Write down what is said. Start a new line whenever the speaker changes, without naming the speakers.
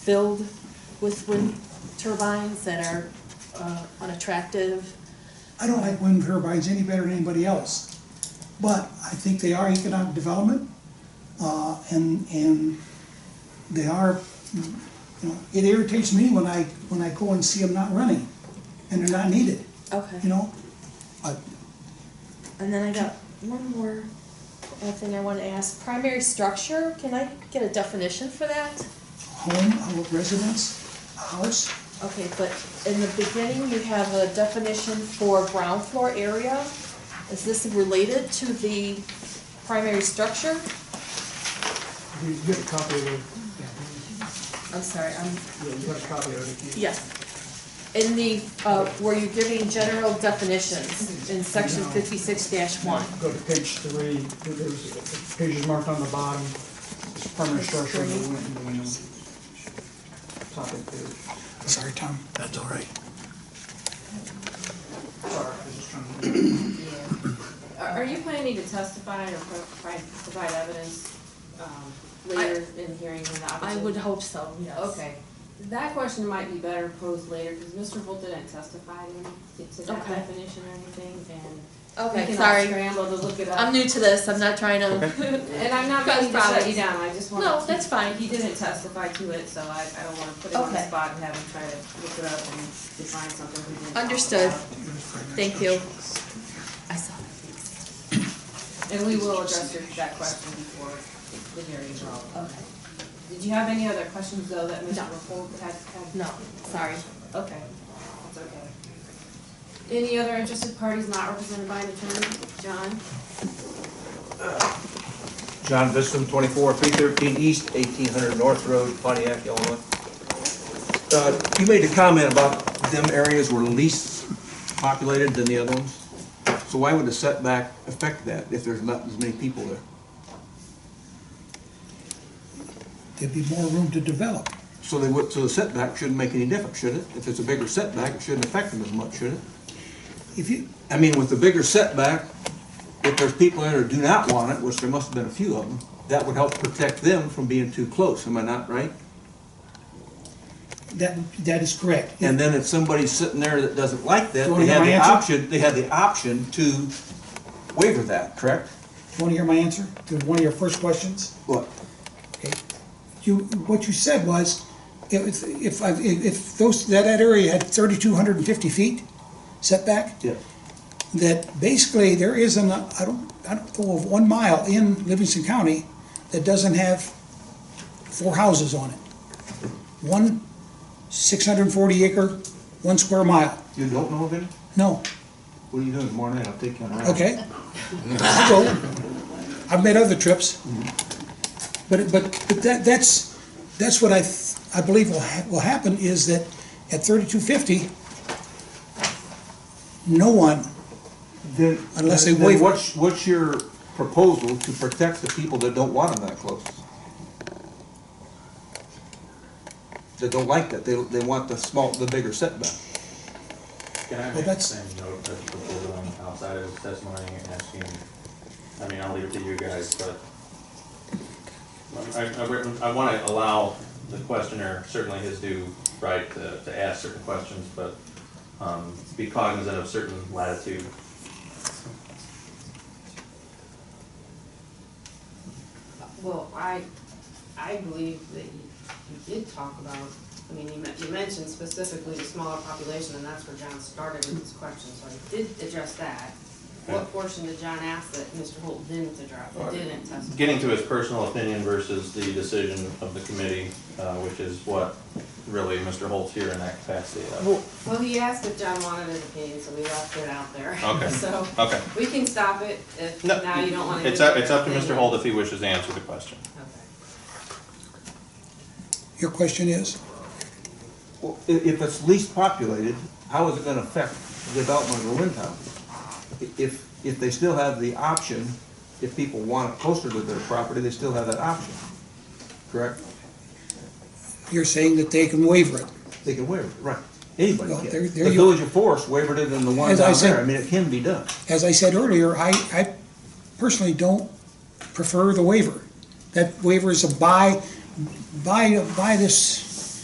filled with wind turbines that are uh, unattractive.
I don't like wind turbines any better than anybody else, but I think they are economic development, uh, and, and they are, you know, it irritates me when I, when I go and see them not running, and they're not needed, you
Okay.
know? I-
And then I got one more uh, thing I want to ask. Primary structure, can I get a definition for that?
Home, our residence, a house,
Okay, but in the beginning, you have a definition for ground floor area. Is this related to the primary structure?
You you got a copy of it?
I'm sorry, I'm,
Yeah, you got a copy of it.
yes. In the, uh, where you're giving general definitions in section fifty-six one.
Go to page three, There- there's pages marked on the bottom, it's permanent
Page
structure of the
three.
wind and windmill. Top of page.
sorry, Tom.
That's all right.
Sorry, I was just trying to.
Are are you planning to testify or pro- provide, provide evidence um, later in hearing when the
I
opposition?
would hope so, yes.
Okay, that question might be better posed later, because Mr. Holt didn't testify to any, to that
Okay.
definition or anything, and we
Okay,
can all
sorry.
scramble to look it up.
I'm new to this, I'm not trying to,
And I'm not meaning to shut you down, I just want.
no, that's fine.
He didn't testify to it, so I, I don't wanna put him on the
Okay.
spot and have him try to look it up and define something he didn't. talk
Understood.
about.
Thank you. I saw
And we will address your, that question before the hearing is over.
that. Okay.
Did you have any other questions though that Mr.
No.
Wolfold had? had?
No, sorry.
Okay, that's okay. Any other interested parties not represented by an attorney? John?
John Bissell, 24, 313 East, 1800 North Road, Pontiac, Illinois. Uh, You made a comment about them areas were least populated than the other ones. So why would the setback affect that if there's not as many people there?
There'd be more room to develop.
So they would, so the setback shouldn't make any difference, should it? If it's a bigger setback, it shouldn't affect them as much, should it?
If you,
I mean, with the bigger setback, if there's people in there who do not want it, which there must have been a few of them, that would help protect them from being too close, am I not right?
that, that is correct.
And then if somebody's sitting there that doesn't like that,
Do you wanna
they
hear
have
my
the
answer?
option, they have the option to waiver that, correct?
Want to hear my answer to one of your first questions?
What?
Okay. You, what you said was, if, if, I- if those, that, that area had thirty-two hundred and fifty feet setback,
Yeah.
that basically there isn't, a- I don't, I don't know of one mile in Livingston County that doesn't have four houses on it. One six hundred and forty acre, one square mile.
You don't know of any?
No,
What are you doing tomorrow night? I'll take you on a ride.
okay? So, I've made other trips. But, but, but that, that's, that's what I, th- I believe will, ha- will happen is that at thirty-two fifty, no one,
Then,
Unless they
then
waive it.
What's, what's your proposal to protect the people that don't want them that close? That don't like that, they, they want the small, the bigger setback.
Can
Well,
I make the
that's-
same note that the board on outside of testimony and asking, I mean, I'll leave it to you guys, but I, I, re- I wanna allow the questioner certainly his due right to, to ask certain questions, but, um, be cognizant of certain latitude.
Well, I, I believe that you, you did talk about, I mean, you men- you mentioned specifically the smaller population, and that's where John started with his question, so I did address that.
Okay.
What portion did John ask that Mr. Holt didn't address, didn't testify?
Getting to his personal opinion versus the decision of the committee, uh, which is what really Mr. Holt's here in that capacity of.
Well, he asked if John wanted his opinion, so we left it out there.
Okay.
So,
Okay.
we can stop it if
No,
now you don't wanna.
It's
do
up,
it.
it's up to Mr. Holt if he wishes to answer the question.
Okay.
your question is?
Well, i- if it's least populated, how is it gonna affect the development of the wind tower? I- If, if they still have the option, if people want it closer to their property, they still have that option, correct?
You're saying that they can waiver it.
They can waiver, it, right, anybody
Well,
can.
there- there
The
you-
village of Forest wavered it in the one
As I
down
said-
there, I mean, it can be done.
As I said earlier, I, I personally don't prefer the waiver. That waiver is a buy, buy, buy this